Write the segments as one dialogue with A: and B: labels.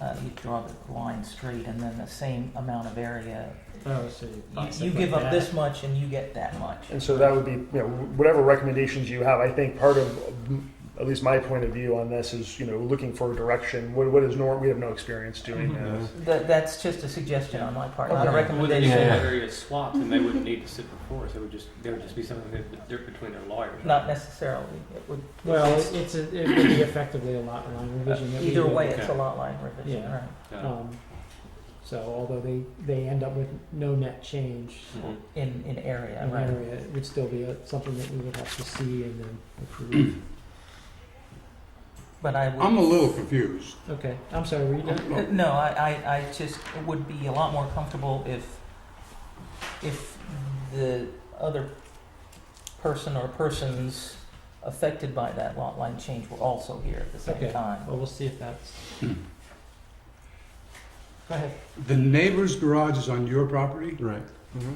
A: uh, you draw the line straight and then the same amount of area.
B: Oh, so
A: You,
B: you,
A: you give up this much and you get that much.
C: And so that would be, you know, whatever recommendations you have, I think part of, at least my point of view on this is, you know, looking for a direction. What, what is nor, we have no experience doing
B: Mhm.
C: this.
A: That, that's just a suggestion on my part, not a
C: Okay.
B: Wouldn't
A: recommendation.
B: be
D: Yeah.
B: area swapped, and they wouldn't need to sit before us. It would just there would just be something that they're between their lawyers.
A: Not necessarily. It would.
E: Well, it's, it's a, it would be effectively a lot line revision. that we
A: Uh, Either
E: would-
A: way, it's a
B: Okay.
A: lot line revision,
E: Yeah.
A: right?
B: No.
E: Um, so although they, they end up with no net change
B: Mhm.
A: In, in area,
E: in
A: right?
E: area, it would still be a, something that we would have to see and then approve.
A: But I would.
D: I'm a little confused.
E: okay, I'm sorry, were you done?
A: Uh, No, I, I, I just would be a lot more comfortable if, if the other person or persons affected by that lot line change were also here at the same
E: Okay.
A: time.
E: Well, we'll see if that's. Go ahead.
D: The neighbor's garage is on your property,
F: Right.
C: Mm-hmm.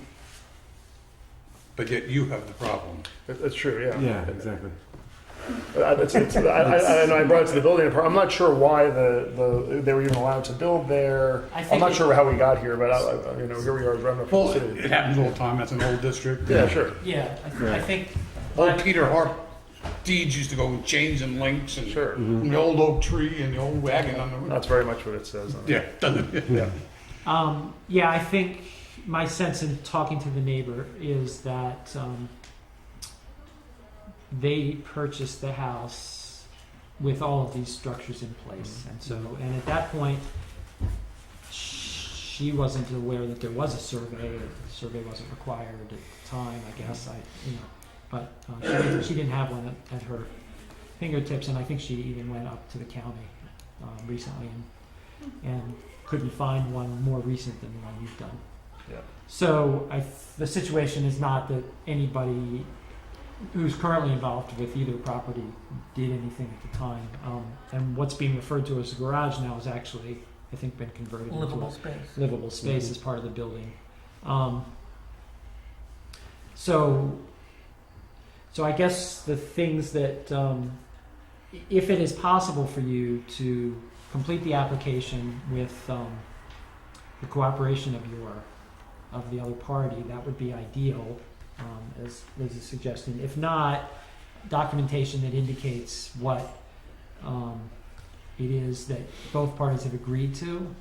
D: but yet you have the problem.
C: That- That's true, yeah.
F: Yeah, exactly.
C: Uh, It's, it's, I, I, I know I brought it to the building department. I'm not sure why the, the, they were even allowed to build there.
E: I
C: I'm not sure how we got here, but I, I, you know, here we are, running
D: Well,
C: for the
D: it
C: city.
D: happens all the time. That's an old district.
C: Yeah, sure.
E: Yeah, I,
F: Right.
E: think.
A: Oh,
D: Old Peter Hart deeds used to go with chains and links and
C: Sure.
D: and the old oak tree and the old wagon on the
C: That's very much what it says. on it.
D: Yeah, doesn't it?
C: Yeah.
E: Um, yeah, I think my sense in talking to the neighbor is that um, they purchased the house with all of these structures in place, and so and at that point, sh- she wasn't aware that there was a survey. or The survey wasn't required at the time, I guess. I you know, but uh, she, didn't- she didn't have one at, at her fingertips, and I think she even went up to the county um, recently and and couldn't find one more recent than the one you've done.
C: Yeah.
E: So I, th- the situation is not that anybody who's currently involved with either property did anything at the time. Um, and what's being referred to as a garage now is actually, I think, been converted into
A: Livable
E: a
A: space.
E: livable space as part of the building. Um, so, so I guess the things that, um, i- if it is possible for you to complete the application with um, the cooperation of your of the other party, that would be ideal, um, as Liz is suggesting. If not, documentation that indicates what um, it is that both parties have agreed to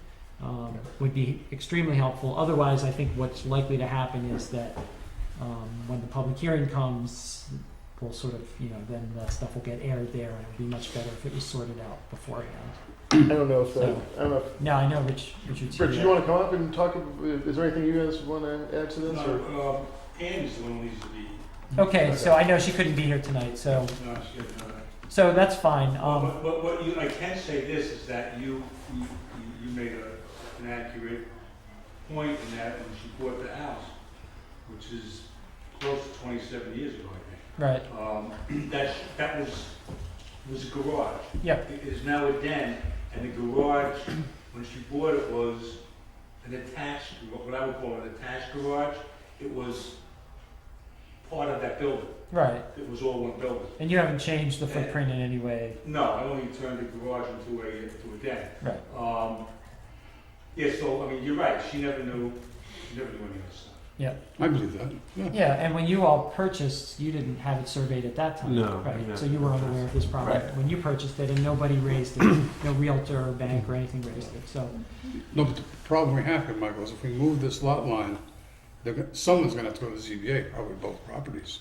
E: um, would be extremely helpful. Otherwise, I think what's likely to happen is that um, when the public hearing comes, we'll sort of, you know, then that stuff will get aired there, and it would be much better if it was sorted out beforehand.
C: I don't know if, that- I don't know if
E: Now, I know Rich, Richard's
C: Rich,
E: here.
C: you want to come up and talk? Is there anything you guys want to add to this? or-
D: Andy's Um, the one who needs to be.
E: Okay, so I know she couldn't be here tonight, so so that's fine. Um,
D: but what you, I can say this is that you, you, you made a, an accurate point in that when she bought the house, which is close to twenty-seven years ago, I think.
E: right,
D: Um, that, that was, was a garage.
E: Yep.
D: It is now a den, and the garage, when she bought it, was an attached, what I would call an attached garage. It was part of that building.
E: right.
D: It was all one building.
E: And you haven't changed the footprint in any way.
D: No, I only turned the garage into a, into a den.
E: Right.
D: Um, yeah, so, I mean, you're right, she never knew, she never knew any of this stuff.
E: Yeah.
D: I believe that.
E: Yeah, and when you all purchased, you didn't have it surveyed at that time.
F: No,
E: Right,
F: no.
E: so you were unaware of this problem
A: Right.
E: when you purchased it, and nobody raised it, no realtor or bank or anything raised it, so.
D: No, but the problem we have here, Michael, is if we move this lot line, they're, go- someone's gonna have to go to the ZBA, probably both properties.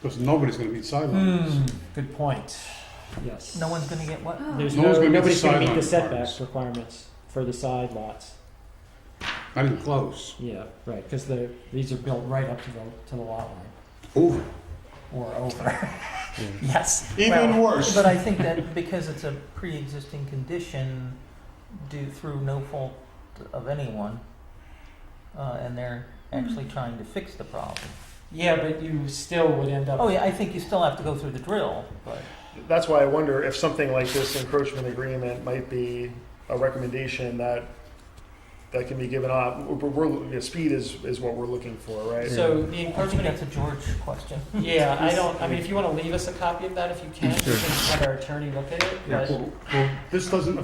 D: Because nobody's gonna meet
E: Hmm,
D: sidelines.
E: good point. Yes.
A: No one's gonna get what?
E: There's
D: No one's
E: no,
D: gonna meet the
E: nobody's gonna meet the
D: sideline
E: setback
D: requirements.
E: requirements for the side lots.
D: Not even close.
E: Yeah, right, because the, these are built right up to the, to the lot line,
D: Over.
E: or over. Yes.
A: Well,
D: worse.
A: But I think that because it's a pre-existing condition due through no fault of anyone, uh, and they're actually trying to fix the problem.
E: Yeah, but you still would end up.
A: Oh yeah, I think you still have to go through the drill, but.
C: That's why I wonder if something like this encroachment agreement might be a recommendation that that can be given up. We're, we're- you know, speed is, is what we're looking for, right?
E: So the
A: I think
E: encouragement
A: that's a George question.
E: Yeah, I don't, I mean, if you wanna leave us a copy of that, if you can, you can have our attorney look at it, but.
D: Well, this doesn't